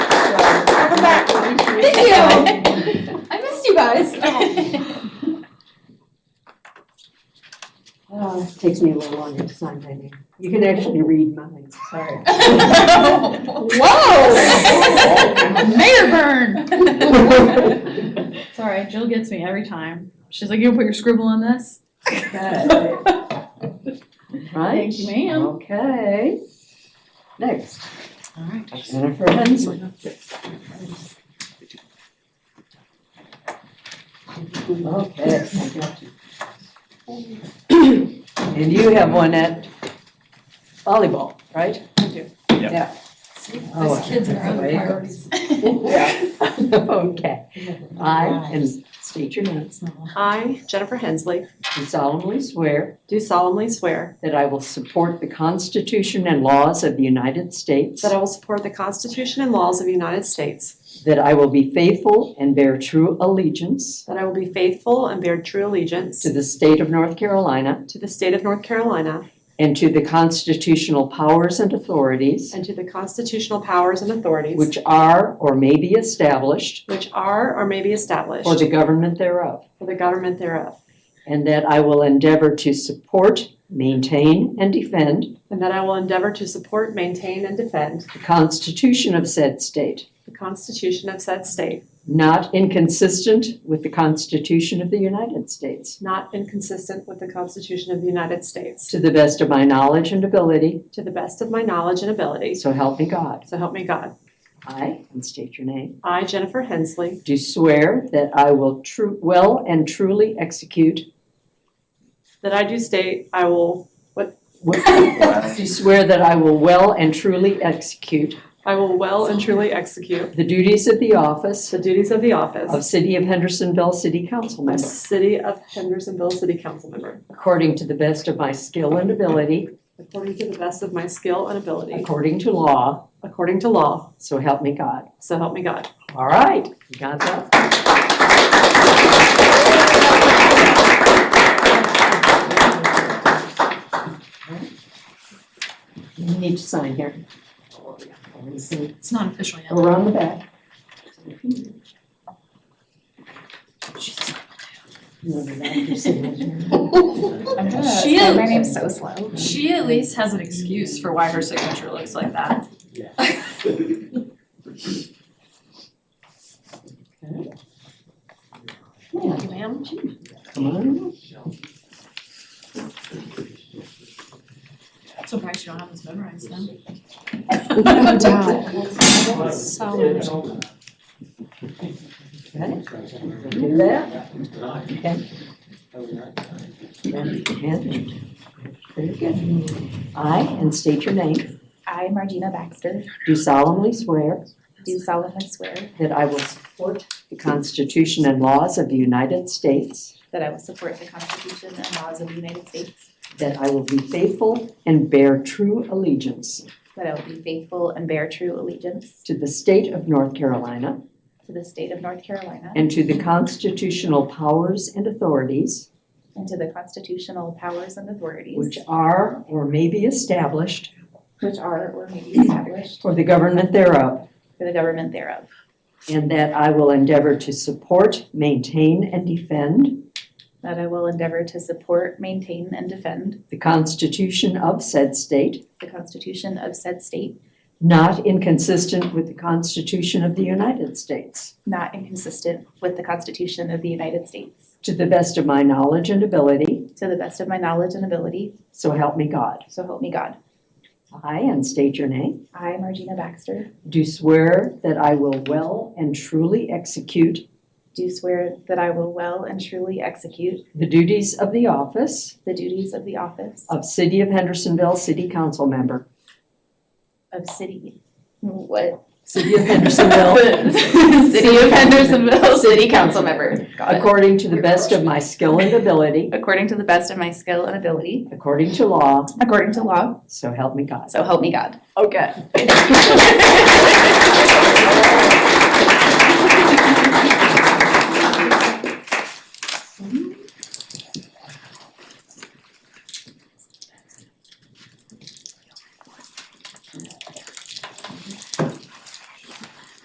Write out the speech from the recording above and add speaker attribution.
Speaker 1: Thank you. I missed you guys.
Speaker 2: Oh, it takes me a little longer to sign my name. You can actually read mine, sorry.
Speaker 3: Oh.
Speaker 1: Whoa! Mayor burn.
Speaker 3: Sorry, Jill gets me every time. She's like, you put your scribble on this?
Speaker 2: Right?
Speaker 3: Thank you, ma'am.
Speaker 2: Okay. Next,
Speaker 3: All right.
Speaker 2: Jennifer Hensley. Okay. And you have one at volleyball, right? I do.
Speaker 4: Yep.
Speaker 2: Yeah. Oh,
Speaker 1: Those kids and our other priorities.
Speaker 2: Yeah. Okay. I, and state your name,
Speaker 5: I, Jennifer Hensley,
Speaker 2: do solemnly swear
Speaker 5: do solemnly swear
Speaker 2: that I will support the Constitution and laws of the United States,
Speaker 5: that I will support the Constitution and laws of the United States,
Speaker 2: that I will be faithful and bear true allegiance
Speaker 5: that I will be faithful and bear true allegiance
Speaker 2: to the state of North Carolina
Speaker 5: to the state of North Carolina
Speaker 2: and to the constitutional powers and authorities
Speaker 5: and to the constitutional powers and authorities
Speaker 2: which are or may be established
Speaker 5: which are or may be established
Speaker 2: for the government thereof,
Speaker 5: for the government thereof,
Speaker 2: and that I will endeavor to support, maintain, and defend
Speaker 5: and that I will endeavor to support, maintain, and defend
Speaker 2: the Constitution of said state,
Speaker 5: the Constitution of said state,
Speaker 2: not inconsistent with the Constitution of the United States,
Speaker 5: not inconsistent with the Constitution of the United States,
Speaker 2: to the best of my knowledge and ability,
Speaker 5: to the best of my knowledge and ability,
Speaker 2: so help me God.
Speaker 5: so help me God.
Speaker 2: I, and state your name,
Speaker 5: I, Jennifer Hensley,
Speaker 2: do swear that I will tru- well and truly execute.
Speaker 5: that I do state I will
Speaker 2: Do swear that I will well and truly execute
Speaker 5: I will well and truly execute
Speaker 2: the duties of the office
Speaker 5: the duties of the
Speaker 2: of
Speaker 5: office
Speaker 2: City of Hendersonville City Council
Speaker 5: of
Speaker 2: member
Speaker 5: City of Hendersonville City Council Member,
Speaker 2: according to the best of my skill and ability,
Speaker 5: according to the best of my skill and ability,
Speaker 2: according to law,
Speaker 5: according to law,
Speaker 2: so help me God.
Speaker 5: so help me God.
Speaker 2: All right, you got that? You need to sign here.
Speaker 3: It's not official yet.
Speaker 2: Go around the back.
Speaker 3: She is-
Speaker 1: My name's so slow.
Speaker 3: She at least has an excuse for why her signature looks like that.
Speaker 2: Yeah,
Speaker 3: Ma'am?
Speaker 2: come on.
Speaker 3: I'm surprised you don't have this memorized then.
Speaker 1: No doubt.
Speaker 2: Okay. Do that. Okay. And- Very good. I, and state your name,
Speaker 1: I, Margina Baxter,
Speaker 2: do solemnly swear
Speaker 1: do solemnly swear
Speaker 2: that I will support the Constitution and laws of the United States,
Speaker 1: that I will support the Constitution and laws of the United States,
Speaker 2: that I will be faithful and bear true allegiance
Speaker 1: that I will be faithful and bear true allegiance
Speaker 2: to the state of North Carolina
Speaker 1: to the state of North Carolina
Speaker 2: And to the constitutional powers and authorities
Speaker 1: and to the constitutional powers and
Speaker 2: which
Speaker 1: authorities
Speaker 2: are or may be established
Speaker 1: which are or may be established
Speaker 2: for the government thereof,
Speaker 1: for the government thereof,
Speaker 2: and that I will endeavor to support, maintain, and defend
Speaker 1: that I will endeavor to support, maintain, and defend
Speaker 2: the Constitution of said state,
Speaker 1: the Constitution of said state,
Speaker 2: not inconsistent with the Constitution of the United States,
Speaker 1: not inconsistent with the Constitution of the United States,
Speaker 2: to the best of my knowledge and ability,
Speaker 1: to the best of my knowledge and ability,
Speaker 2: so help me God.
Speaker 1: so help me God.
Speaker 2: I, and state your name,
Speaker 1: I, Margina Baxter,
Speaker 2: do swear that I will well and truly execute
Speaker 1: do swear that I will well and truly execute
Speaker 2: the duties of the office
Speaker 1: the duties of the office
Speaker 2: of City of Hendersonville City Council Member.
Speaker 1: of city, what?
Speaker 2: City of Hendersonville,
Speaker 1: City of Hendersonville City Council member. Got it.
Speaker 2: according to the best of my skill and ability,
Speaker 1: According to the best of my skill and ability,
Speaker 2: according to law,
Speaker 1: according to law,
Speaker 2: so help me God.
Speaker 1: so help me God.
Speaker 2: Okay.